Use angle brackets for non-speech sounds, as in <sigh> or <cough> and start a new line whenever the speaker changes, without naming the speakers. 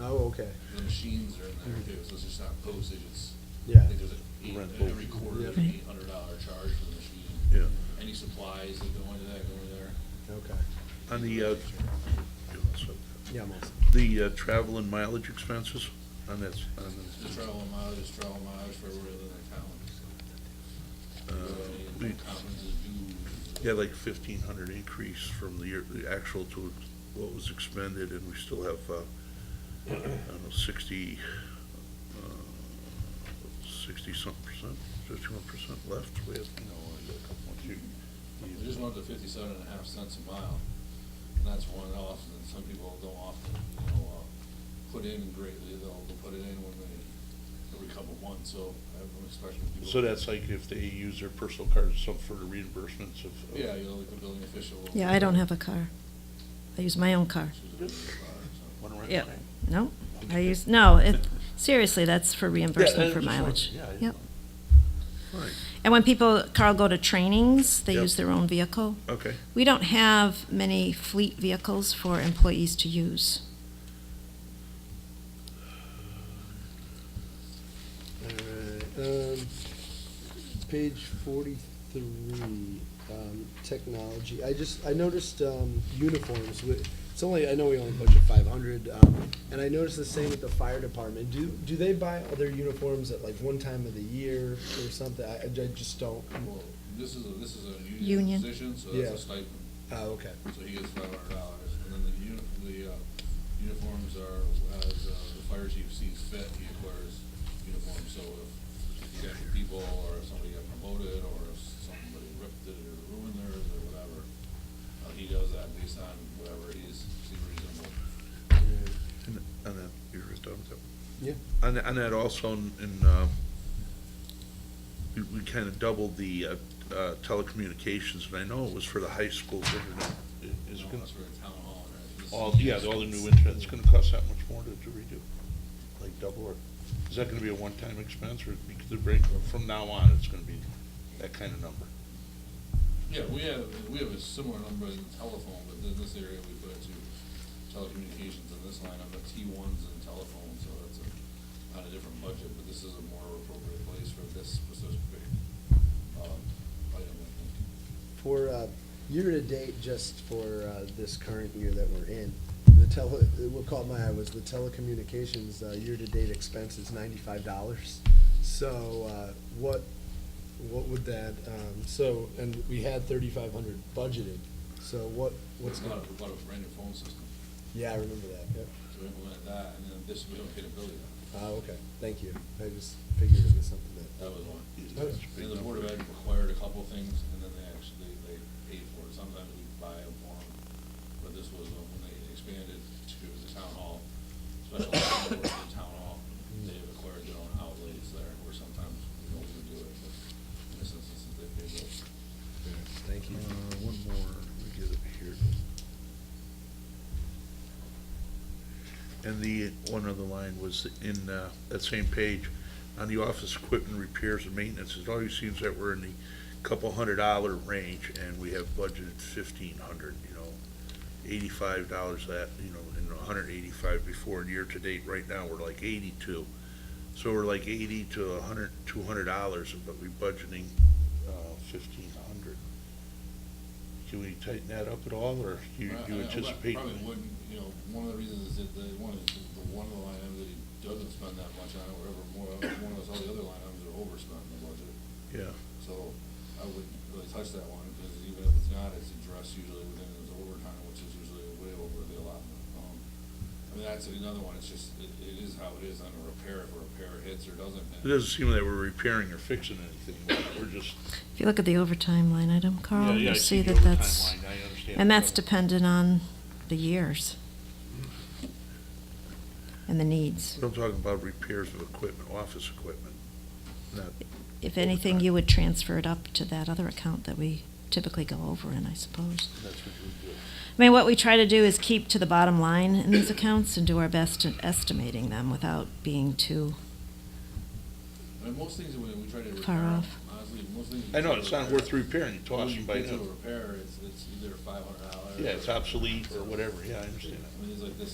Oh, okay,
The machines are in there too, so it's just not postage, it's, I
yeah,
think there's a, eight- uh,
Rent
every
both.
quarter, there's
Yeah.
an eight hundred dollar charge for the machine.
Yeah.
Any supplies that go into that, go into there.
okay,
On the, uh,
yeah, I'm all set.
the uh, travel and mileage expenses on that, s- on
The travel mileage, is travel mileage for everywhere in the town.
the, uh, we,
Any Conferences do.
had like fifteen hundred increase from the year, the actual to what was expended, and we still have, uh, I don't know, sixty, uh, sixty-something percent, fifty-one percent left, we have, you know, I got a couple more. You-
They just went up to fifty-seven and a half cents a mile, and that's one off, and some people don't often, you know, uh, put in greatly, they'll, they'll put it in when they, every couple months, so I'm expecting people.
So that's like if they use their personal card, some for the reimbursements of. uh, of-
Yeah, you know, like the building official. will-
Yeah, I don't have a car. I use my own car.
She's a building official,
Wanna rent
Yeah,
one?
no, I use, no, it, seriously, that's for
Yeah, I
reimbursement for
just wanted-
mileage.
yeah, I just
Yep.
wanted-
And when people, Carl, go to trainings, they
Yep.
use their own vehicle.
Right, okay.
We don't have many fleet vehicles for employees to use.
All right, um, page forty-three, um, technology, I just, I noticed, um, uniforms, with- it's only, I know we only budget five hundred, um, and I noticed the same with the fire department, do, do they buy other uniforms at like one time of the year or something, I, I just don't,
so- Well, this is a, this is a
Union.
union position, so that's
Yeah.
a stipend,
oh, okay,
so he gets five hundred dollars, and then the uni, the, uh, uniforms are, as, uh, the fire chief sees fit, he acquires uniforms, so if you got your people, or if somebody got promoted, or if somebody ripped it or ruined theirs, or whatever, uh, he does that based on whatever he's, seems reasonable.
And on that, you're done with that.
yeah,
On, that- on that also in- in, uh, we, we kind of doubled the, uh, uh, telecommunications, and I know it was for the high school, but it- it- is it
No,
gonna,
That's for the town hall, right? This is-
all, yeah, all the new internet, it's gonna cost that much more to to redo? Like double or, is that gonna be a one-time expense or because the break, or from now on, it's gonna be that kind of number?
Yeah, we have, we have a similar number in telephone, but in this area, we put it to telecommunications in this line, I'm at T ones and telephone, so that's a, on a different budget, but this is a more appropriate place for this specific, um, item, I think.
for, uh, year-to-date, just for, uh, this current year that we're in, the tele, what caught my eye was the telecommunications, uh, year-to-date expense is ninety-five dollars. So, uh, what, what would that, um, so, and we had thirty-five hundred budgeted, so what, what's
We
going?
bought a, we bought a brand new phone system,
Yeah, I remember that, yep.
so we implemented that, and then this, we don't get a building,
Ah, okay, thank you. I just figured it was something that. uh,
that was one.
Nice.
And the Board of Ed required a couple things, and then they actually, they paid for it, sometimes we buy a form, but this was when they expanded to the town hall, special <coughs> town hall, the town hall, they required their own outlays there, where sometimes we don't even do it, but in this instance, they paid those.
Thank you.
Uh, one more, let me get it here. And the, one other line was in, uh, that same page, on the office equipment repairs and maintenance, it always seems that we're in the couple hundred dollar range, and we have budgeted fifteen hundred, you know, eighty-five dollars that, you know, and a hundred eighty-five before, and year-to-date, right now, we're like eighty-two. So we're like eighty to a hundred, two hundred dollars, but we're budgeting, uh, fifteen hundred. Can we tighten that up at all, or you,
I-
you
I- I
anticipate?
Probably wouldn't, you know, one of the reasons is that the, one of the, the one of the line items that he doesn't spend that much on, or ever more, one of those, all the other line items are overspent in the budget.
Yeah,
So I wouldn't really touch that one, because even if it's not, it's addressed usually within his overtime, which is usually way over the allotment. Um, I mean, that's another one, it's just, it, it is how it is on a repair, if a repair hits or doesn't
it
hit.
doesn't seem that we're repairing or fixing anything, we're just.
If you look at the overtime line item, Carl,
Yeah, yeah, I
you see
the
that
overtime
that's,
line, I understand.
and that's dependent on the years and the needs.
I'm talking about repairs of equipment, office equipment, not,
If anything,
Overtime.
you would transfer it up to that other account that we typically go over in, I suppose.
that's what you would do.
I mean, what we try to do is keep to the bottom line in these accounts and do our best at estimating them without being too,
I mean, most things, when we try to
Far
repair,
off.
honestly, most things. we
I know,
try to
it's not
repair-
worth repairing,
When
tossing
you
by,
get to a
hand.
repair, it's, it's either five hundred dollars.
yeah, it's obsolete or whatever, yeah, I understand that.
I mean, it's like this